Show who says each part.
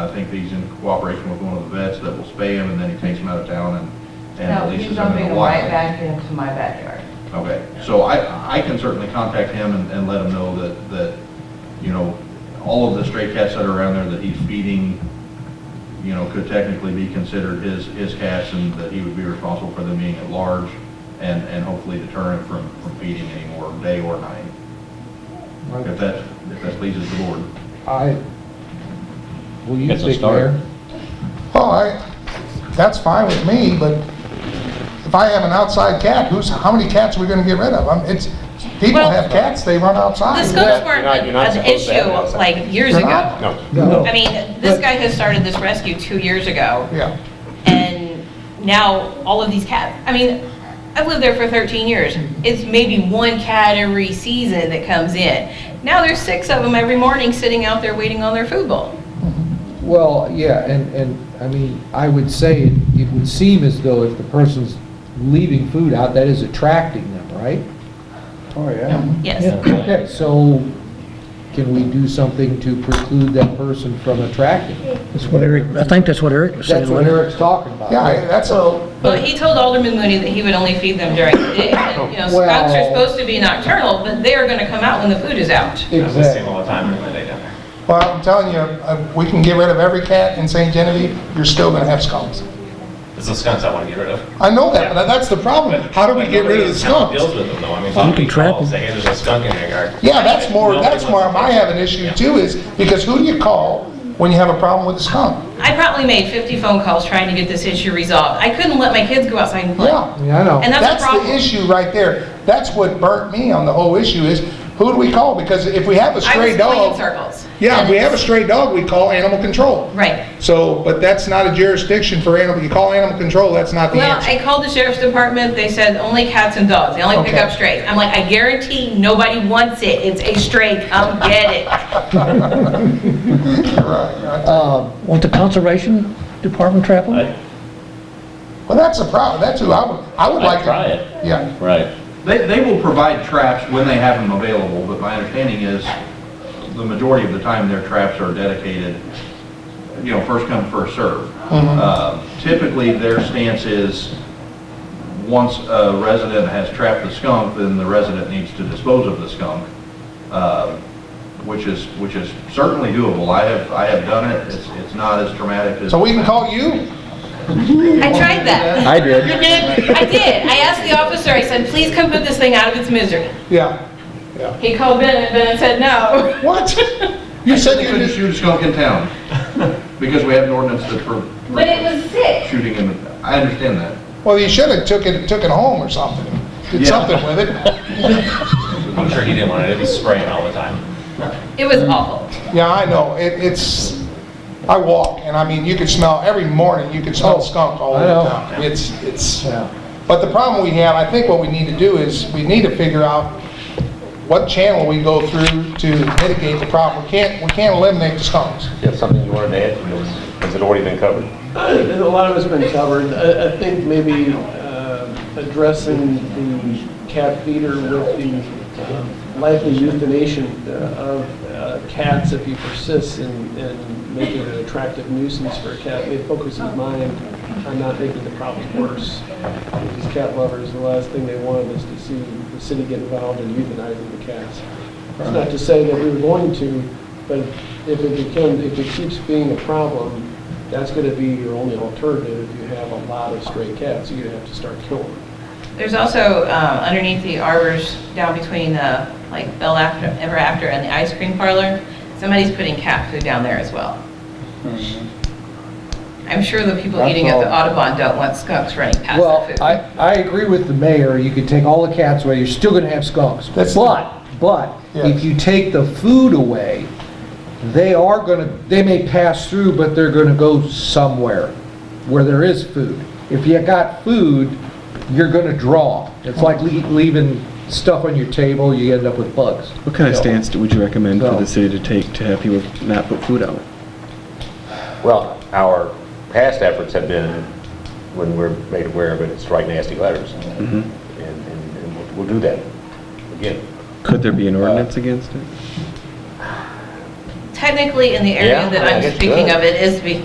Speaker 1: I think he's in cooperation with one of the vets that will spay him, and then he takes him out of town and,
Speaker 2: No,
Speaker 1: and
Speaker 2: he's
Speaker 1: releases him in
Speaker 2: jumping
Speaker 1: the
Speaker 2: right
Speaker 1: wild.
Speaker 2: back into my backyard.
Speaker 1: Okay, so I, I can certainly contact him and, and let him know that, that, you know, all of the stray cats that are around there that he's feeding, you know, could technically be considered his, his cats, and that he would be responsible for them being at large, and, and hopefully deter him from, from feeding anymore, day or night, if that, if that pleases the board.
Speaker 3: I, will you
Speaker 4: It's a
Speaker 3: speak,
Speaker 4: start.
Speaker 3: Mayor?
Speaker 5: Well, I, that's fine with me, but if I have an outside cat, who's, how many cats are we gonna get rid of? I'm- It's, people
Speaker 6: Well-
Speaker 5: have cats, they run outside.
Speaker 6: The
Speaker 5: We
Speaker 6: scopes
Speaker 5: got-
Speaker 6: weren't
Speaker 4: not- you're not
Speaker 6: an
Speaker 4: supposed to have
Speaker 6: issue
Speaker 4: it outside.
Speaker 6: like years
Speaker 5: They're not?
Speaker 6: ago.
Speaker 4: No.
Speaker 3: No.
Speaker 6: I mean, this
Speaker 3: But-
Speaker 6: guy has started this rescue two years ago,
Speaker 5: Yeah,
Speaker 6: and now all of these cats, I mean, I've lived there for 13 years. It's maybe one cat every season that comes in. Now there's six of them every morning sitting out there waiting on their food bowl.
Speaker 3: Well, yeah, and, and, I mean, I would say, it it would seem as though if the person's leaving food out, that is attracting them, right?
Speaker 5: oh, yeah.
Speaker 6: Yes.
Speaker 3: Okay, so can we do something to preclude that person from attracting?
Speaker 7: That's what Eric, I think that's what Eric was saying.
Speaker 3: That's what Eric's talking about.
Speaker 5: Yeah, I- that's a,
Speaker 6: Well, he told Alderman Mooney that he would only feed them during the day. You know, scouts are
Speaker 3: Well-
Speaker 6: supposed to be nocturnal, but they are going to come out when the food is out.
Speaker 3: Exactly.
Speaker 8: all the time during the day down there.
Speaker 5: well, I'm telling you, uh, we can get rid of every cat in St. Genevieve, you're still gonna have skunks.
Speaker 8: It's the skunks I want to get rid of.
Speaker 5: I know that, but that's the problem. How do we
Speaker 8: But
Speaker 5: get rid of
Speaker 8: nobody
Speaker 5: the
Speaker 8: in town
Speaker 5: skunks?
Speaker 8: Deals with them though, I mean,
Speaker 7: You can
Speaker 8: somebody
Speaker 7: trap
Speaker 8: calls,
Speaker 7: them.
Speaker 8: hey, there's a skunk in your yard.
Speaker 5: Yeah, that's more,
Speaker 8: Nobody
Speaker 5: that's where
Speaker 8: wants to-
Speaker 5: I have an issue too, is because who do you call when you have a problem with a skunk?
Speaker 6: I probably made 50 phone calls trying to get this issue resolved. I couldn't let my kids go outside and play.
Speaker 5: Yeah.
Speaker 3: Yeah, I know.
Speaker 6: And that's a
Speaker 5: That's
Speaker 6: problem.
Speaker 5: the issue right there. That's what burnt me on the whole issue is, who do we call? Because if we have a
Speaker 6: I was
Speaker 5: stray
Speaker 6: going in
Speaker 5: dog.
Speaker 6: circles.
Speaker 5: Yeah, if we have a stray dog, we call animal control.
Speaker 6: Right.
Speaker 5: So, but that's not a jurisdiction for animal, you call animal control, that's not the
Speaker 6: Well,
Speaker 5: answer.
Speaker 6: I called the sheriff's department, they said only cats and dogs, they only pick
Speaker 5: Okay.
Speaker 6: up strays. I'm like, I guarantee nobody wants it, it's a stray, come get it.
Speaker 7: Won't the conservation department trap them?
Speaker 4: I-
Speaker 5: Well, that's a problem, that's who I would, I would
Speaker 4: I'd
Speaker 5: like. to-
Speaker 4: try it,
Speaker 5: Yeah,
Speaker 4: right.
Speaker 1: They, they will provide traps when they have them available, but my understanding is the majority of the time their traps are dedicated, you know, first come, first serve. Uh, Typically, their stance is, once a resident has trapped the skunk, then the resident needs to dispose of the skunk, uh, which is, which is certainly doable. I have, I have done it, it's, it's not as traumatic as.
Speaker 5: so we can call you?
Speaker 6: I tried that.
Speaker 3: I did.
Speaker 6: You did? I did, I asked the officer, I said, please come put this thing out of its misery.
Speaker 5: Yeah.
Speaker 6: He called Ben, and Ben said no.
Speaker 5: What? You said
Speaker 1: We
Speaker 5: you
Speaker 1: couldn't
Speaker 5: just,
Speaker 1: shoot a skunk in town, because we have an ordinance that for.
Speaker 6: But it was sick.
Speaker 1: shooting him. I understand that.
Speaker 5: well, you should have took it, took it home or something, did
Speaker 1: Yeah.
Speaker 5: something with it.
Speaker 8: I'm sure he didn't want it, it'd be spraying all the time.
Speaker 6: It was awful.
Speaker 5: Yeah, I know, it, it's, I walk, and I mean, you could smell, every morning, you could smell skunk all
Speaker 3: Oh. I
Speaker 5: over
Speaker 3: know.
Speaker 5: town. It's, it's,
Speaker 3: Yeah.
Speaker 5: but the problem we have, I think what we need to do is, we need to figure out what channel we go through to mitigate the problem. We can't, we can't eliminate the skunks.
Speaker 9: Do you have something you wanted to add, or was- has it already been covered?
Speaker 10: I think A lot of it's been covered. I, I think maybe uh, addressing the cat feeder with the um, likely euthanasia uh, of uh, cats if he persists in, in making it an attractive nuisance for a cat may focus his mind on not making the problem worse. These cat lovers, the last thing they want is to see the city get involved in euthanizing the cats. It's not to say that we were going to, but if it becomes, if it keeps being a problem, that's gonna be your only alternative if you have a lot of stray cats, you're gonna have to start killing them.
Speaker 6: There's also uh, underneath the arbors, down between uh, like Bell After, Ever After and the ice cream parlor, somebody's putting cat food down there as well. I'm sure the people eating at the
Speaker 3: Hmm. That's all.
Speaker 6: Audubon don't want skunks running past
Speaker 3: Well,
Speaker 6: their food.
Speaker 3: I, I agree with the mayor, you could take all the cats away, you're still gonna have skunks.
Speaker 5: That's-
Speaker 3: But, but, if
Speaker 5: Yes.
Speaker 3: you take the food away, they are gonna, they may pass through, but they're gonna go somewhere where there is food. If you got food, you're gonna draw. 'em. It's like le- leaving stuff on your table, you end up with bugs.
Speaker 11: What kind of
Speaker 3: So-
Speaker 11: stance would you recommend for
Speaker 3: No.
Speaker 11: the city to take to have people not put food out?
Speaker 9: Well, our past efforts have been, when we're made aware of it, it's write nasty letters.
Speaker 11: Mm-hmm.
Speaker 9: And, and and we'll- we'll do that, again. Uh,
Speaker 11: Could there be an ordinance against it?
Speaker 6: technically in the area
Speaker 5: Yeah,
Speaker 6: that
Speaker 5: I
Speaker 6: I'm
Speaker 5: guess
Speaker 6: speaking
Speaker 5: good.
Speaker 6: of, it is be-